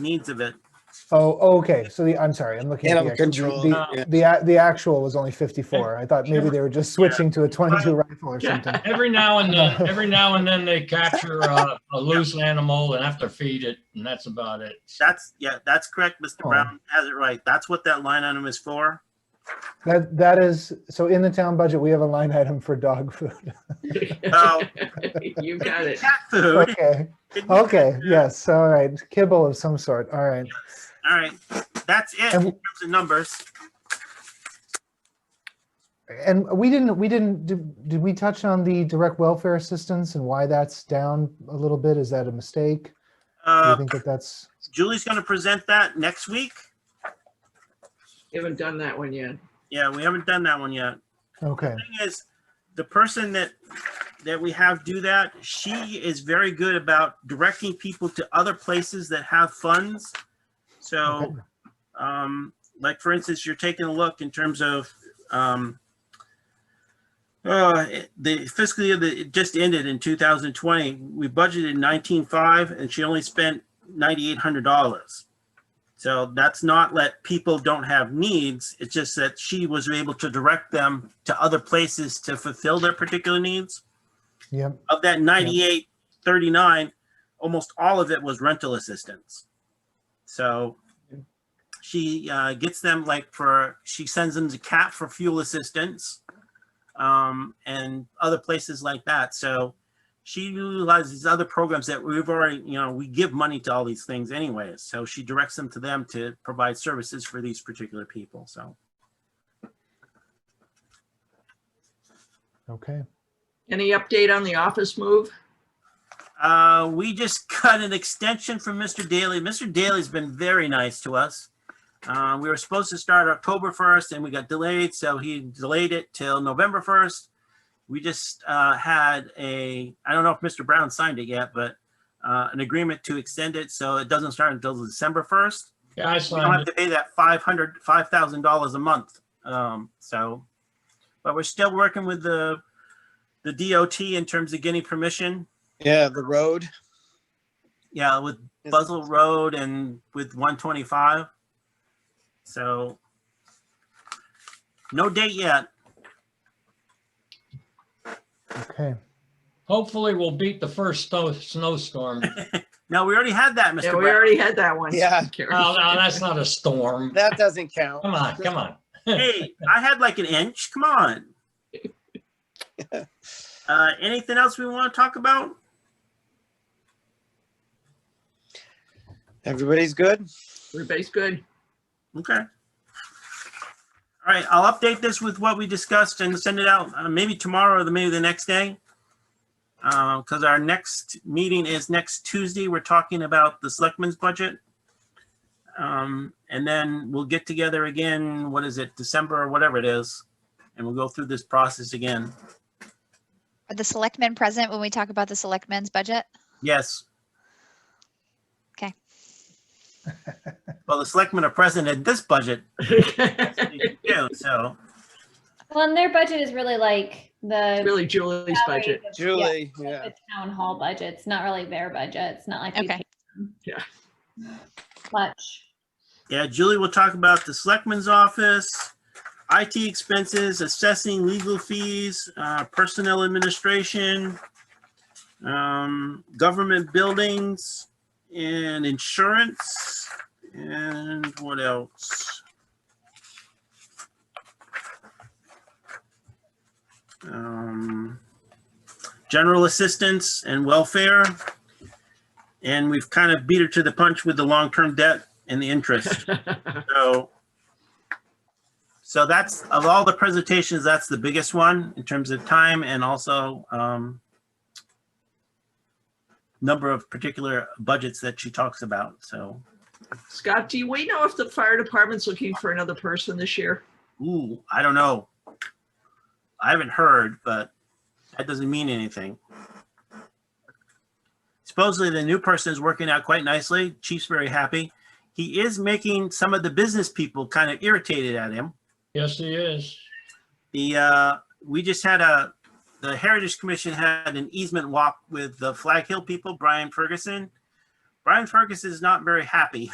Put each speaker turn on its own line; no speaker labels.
needs of it.
Oh, okay, so the, I'm sorry, I'm looking. at the
Animal
actual-
control,
the-
yeah.
The, a- the actual was only 54. I thought maybe they were just switching to a 22 rifle or something.
Yeah, every now and then, every now and then they capture uh, a loose animal and have to feed it, and that's about it.
That's, yeah, that's correct. Mr.
Oh.
Brown has it right. That's what that line item is for.
That, that is, so in the town budget, we have a line item for dog food.
Oh.
You got it.
Cat food.
Okay, okay, yes, all right, kibble of some sort, all right.
All right, that's it in
And-
terms of numbers.
And we didn't, we didn't, did did we touch on the direct welfare assistance and why that's down a little bit? Is that a mistake? Do you
Uh,
think that that's,
Julie's going to present that next week.
You Haven't done that one yet.
Yeah, we haven't done that one yet.
okay,
thing is, the person that, that we have do that, she is very good about directing people to other places that have funds. So, um, like, for instance, you're taking a look in terms of, um, uh, the fiscal year that it just ended in two thousand twenty, we budgeted nineteen-five and she only spent ninety-eight hundred dollars. So that's not let people don't have needs. It's just that she was able to direct them to other places to fulfill their particular needs.
yep,
Of that 98, 39, almost all of it was rental assistance. So she uh, gets them like for, she sends them to CAP for fuel assistance um, and other places like that. So she utilizes other programs that we've already, you know, we give money to all these things anyways. So she directs them to them to provide services for these particular people. So
okay.
Any update on the office move?
uh, we just got an extension from Mr. Daly. Mr. Daly's been very nice to us. Uh, we were supposed to start October 1st and we got delayed, so he delayed it till November 1st. We just uh, had a, I don't know if Mr. Brown signed it yet, but uh, an agreement to extend it, so it doesn't start until December 1st.
Yeah, I
We don't have
signed
to
it.
pay that five hundred, five thousand dollars a month. Um, so, but we're still working with the, the DOT in terms of getting permission.
Yeah, the road.
Yeah, with Buzzell Road and with one twenty-five. So no date yet.
Okay,
Hopefully, we'll beat the first snow, snowstorm. Oh,
No, we already had that, Mr.
Yeah, we
Brown.
already had that one.
Yeah.
Karen.
Oh, no, that's not a storm.
That doesn't count.
Come on, come on.
Hey, I had like an inch. Come on. Uh, anything else we want to talk about?
Everybody's good?
Everybody's good.
Okay. All right, I'll update this with what we discussed and send it out uh, maybe tomorrow or the- maybe the next day. Because our next meeting is next Tuesday. We're talking about the selectmen's budget. Um, And then we'll get together again, what is it, December or whatever it is, and we'll go through this process again.
Are the selectmen present when we talk about the selectmen's budget?
Yes.
Okay.
Well, the selectmen are present at this budget, too, so.
Well, and their budget is really like the.
Really Julie's
salaries
budget.
of- yeah,
Julie, yeah.
The town hall budget. It's not really their budget. It's not like. we
Okay.
pay them
Yeah.
Much.
Yeah, Julie will talk about the selectman's office, IT expenses, assessing legal fees, uh, personnel administration, um, government buildings and insurance and what else? Um, general assistance and welfare. And we've kind of beat her to the punch with the long-term debt and the interest. So, so that's, of all the presentations, that's the biggest one in terms of time and also um, number of particular budgets that she talks about, so.
Scott, do we know if the fire department's looking for another person this year?
Ooh, I don't know. I haven't heard, but that doesn't mean anything. Supposedly, the new person is working out quite nicely. Chief's very happy. He is making some of the business people kind of irritated at him.
Yes, he is.
The, uh, we just had a, the Heritage Commission had an easement walk with the Flag Hill people, Brian Ferguson. Brian Ferguson is not very happy